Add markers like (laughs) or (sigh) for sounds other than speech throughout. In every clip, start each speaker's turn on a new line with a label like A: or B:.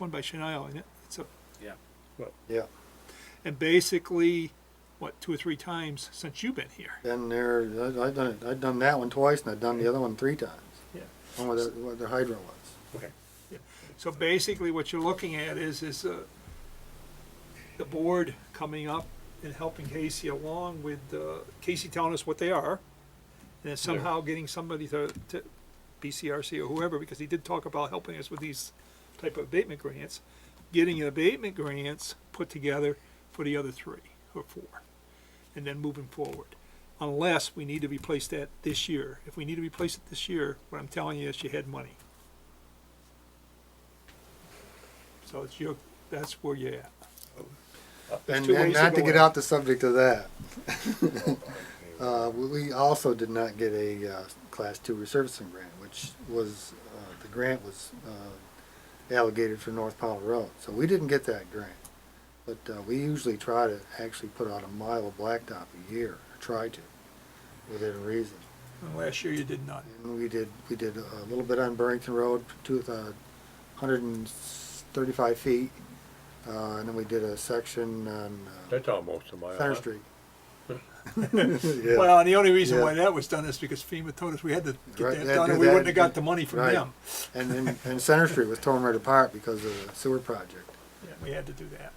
A: one by Chanel, and it- it's a,
B: Yeah.
C: Yeah,
A: and basically, what, two or three times since you've been here?
C: been there, I- I've done, it- I've done that one twice and I've done the other one three times.
A: Yeah.
C: One where the, where the hydro was.
B: Okay.
A: So basically, what you're looking at is, is uh, the board coming up and helping Casey along with, uh, Casey telling us what they are, and then somehow getting somebody to, to BCRC or whoever, because he did talk about helping us with these type of abatement grants, getting abatement grants put together for the other three or four, and then moving forward. Unless we need to replace that this year. If we need to replace it this year, what I'm telling you is you had money. So it's your, that's where you're at. There's
C: And,
A: two
C: and
A: ways to
C: not to
A: go
C: get
A: at it. Oh,
C: out the subject of that. (laughs) Uh, we- we also did not get a, uh, class two resurfacing grant, which was, uh, the grant was, uh, allocated for North Powell Road, so we didn't get that grant. But, uh, we usually try to actually put out a mile of blacktop a year, or try to, within reason.
A: And last year you did not.
C: And we did, we did a little bit on Burrington Road, two, uh, hundred and thirty-five feet. Uh, and then we did a section on, uh,
D: That's almost a mile.
A: (laughs)
C: Center
D: huh?
C: Street.
A: Well, and the only reason
C: Yeah.
A: why that was done is because FEMA told us we had to get
C: Right,
A: that
C: they
A: done,
C: do
A: and we
C: that.
A: wouldn't have got the money from
C: Right.
A: them.
C: And, and, and Center Street was torn right apart because of the sewer project.
A: Yeah, We had to do that.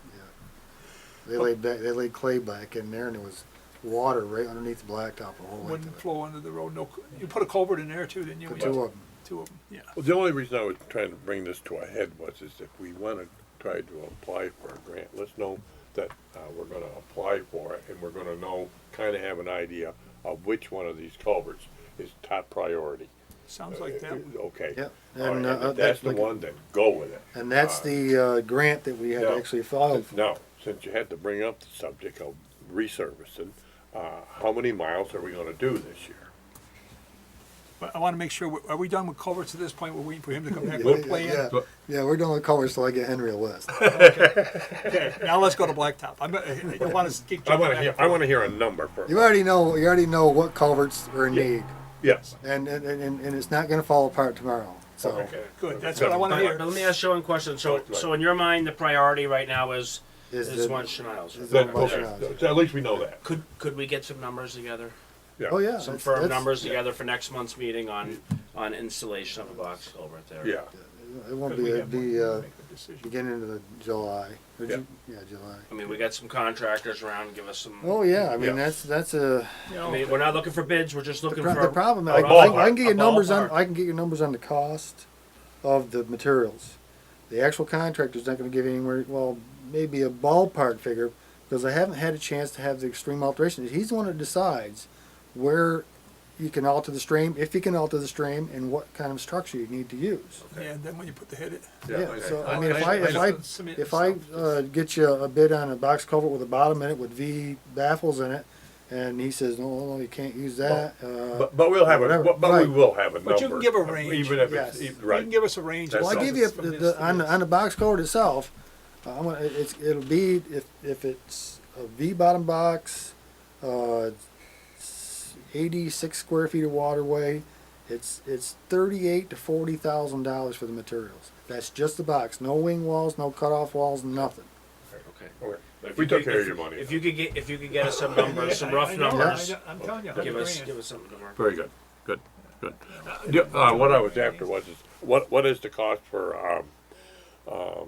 C: They laid back, they laid clay back in there and there was water right underneath the blacktop the whole length
A: Wouldn't
C: of it.
A: flow under the road, no, cou- you put a culvert in there too, didn't you?
C: The
A: We-
C: two of them.
A: Two of them, yeah.
D: Well, the only reason I was trying to bring this to a head was is if we wanna try to apply for a grant, let's know that, uh, we're gonna apply for it and we're gonna know, kinda have an idea of which one of these culverts is top priority. Uh,
A: Sounds like that. one.
D: Okay.
C: Yep.
D: All
C: And,
D: right,
C: uh,
D: and if that's the
C: that-
D: one, then go with it.
C: And that's the, uh, grant that we had
D: No.
C: actually filed for.
D: Now, since you had to bring up the subject of resurfacing, uh, how many miles are we gonna do this year?
A: But I wanna make sure, we- are we done with culverts at this point? We're waiting for him to come back
C: Yeah,
A: with a
C: yeah, yeah.
A: plan?
C: Yeah, we're doing the colors till I get Henry a list.
A: Okay, now let's go to blacktop. I'm, I don't wanna keep jumping back
D: I wanna hear,
A: and
D: I
A: forth.
D: wanna hear a number first.
C: You already know, you already know what culverts are in need
D: Yes.
C: and, and, and, and it's not gonna fall apart tomorrow, so.
D: Okay.
A: Good, that's what I wanna
B: But,
A: hear.
B: but let me ask you one question. So,
D: Right, right.
B: so in your mind, the priority right now is
C: is
B: this
C: the-
B: one Chanel's.
C: is
D: Then,
C: the one
D: okay,
C: Chanel's.
D: so at least we know that.
B: Could could we get some numbers together,
C: Oh, yeah.
B: some
C: that's-
B: firm
C: that's-
B: numbers together for next month's meeting on on installation of a box culvert there?
D: Yeah,
C: It won't
A: But
C: be,
A: we
C: it'd
A: have one
C: be,
A: to
C: uh,
A: make a decision.
C: beginning of the July, or
D: Yeah.
C: Ju- yeah, July.
B: I mean, we got some contractors around. Give us some.
C: Oh, yeah, I
D: Yeah.
C: mean, that's, that's a,
B: I mean, we're not looking for bids. We're just
C: the
B: looking
C: pro-
B: for
C: the problem,
B: a
C: I, I
D: ballpark,
C: I can
B: a
C: get you numbers on,
B: ballpark.
C: I can get you numbers on the cost of the materials. The actual contractor's not gonna give you anywhere, well, maybe a ballpark figure, because I haven't had a chance to have the extreme alterations. He's the one that decides where you can alter the stream, if you can alter the stream, and what kind of structure you need to use.
A: Yeah, and then when you put the head in.
C: Yeah,
D: okay.
C: so, I
D: I-
C: mean, if
D: I-
C: I, if
D: I-
C: I,
A: Cement
C: if I,
A: and stuff.
C: uh, get you a bid on a box culvert with a bottom in it with V baffles in it, and he says, no, no, you can't use that, uh,
D: But, but we'll have a,
C: Whatever,
D: but but we
C: right.
D: will have a number.
A: But you can give a range.
D: Even if
C: Yes.
D: it's, e-
A: You can
D: right,
A: give us a range.
D: That's
C: well, I
D: all.
C: give you,
A: From
C: the,
A: this
C: the,
A: to
C: on, the-
A: this.
C: on the box culvert itself, uh, I'm gonna, it's, it'll be, if, if it's a V bottom box, uh, s- eighty-six square feet of waterway, it's, it's thirty-eight to forty thousand dollars for the materials. That's just the box, no wing walls, no cutoff walls, nothing.
B: Okay.
D: Okay.
B: But if
D: we
B: you
D: took
B: could-
D: care of
B: if-
D: your money.
B: If you could get if you could get us some numbers,
C: (laughs)
B: some rough
A: I know, I know,
B: numbers,
A: I'm telling you,
B: give us
A: 100
B: give
A: grand.
B: us something to work.
D: Very good, good, good. Uh, the- Uh, what I was after was, is what, what is the cost for, um, um,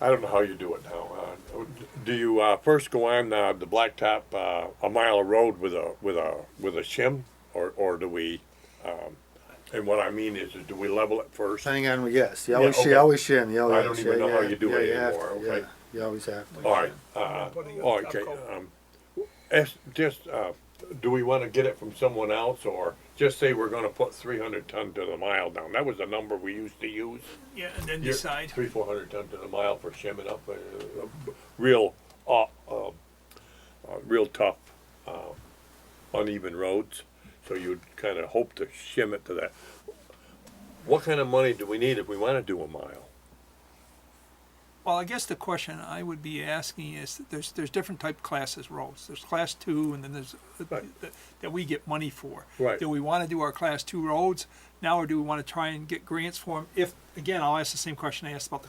D: I don't know how you do it now. Uh, do you, uh, first go on, uh, the blacktop, uh, a mile of road with a, with a, with a shim? Or, or do we, um, and what I mean is, is do we level it first?
C: Hang on, yes, you
D: Yeah,
C: always,
D: okay.
C: you always shim, you always.
D: I don't even
C: yeah,
D: know how
C: yeah,
D: you do
C: yeah,
D: it
C: you have to,
D: anymore,
C: Yeah,
D: okay?
C: you always have to.
D: All right, uh,
A: Putting it
D: all
A: on
D: right,
A: top
D: okay,
A: coat.
D: um, as, just, uh, do we wanna get it from someone else, or just say we're gonna put three hundred ton to the mile down, that was the number we used to use?
A: Yeah, and then
D: Your-
A: decide.
D: Three, four hundred ton to the mile for shimming up, uh, uh, real, uh, uh, uh, real tough, uh, uneven roads, so you'd kinda hope to shim it to that. What kind of money do we need if we wanna do a mile?
A: Well, I guess the question I would be asking is, there's, there's different type classes roads. There's class two and then there's,
D: Right.
A: that- that we get money for.
D: Right.
A: Do we wanna do our class two roads now or do we wanna try and get grants for them? If, again, I'll ask the same question I asked about the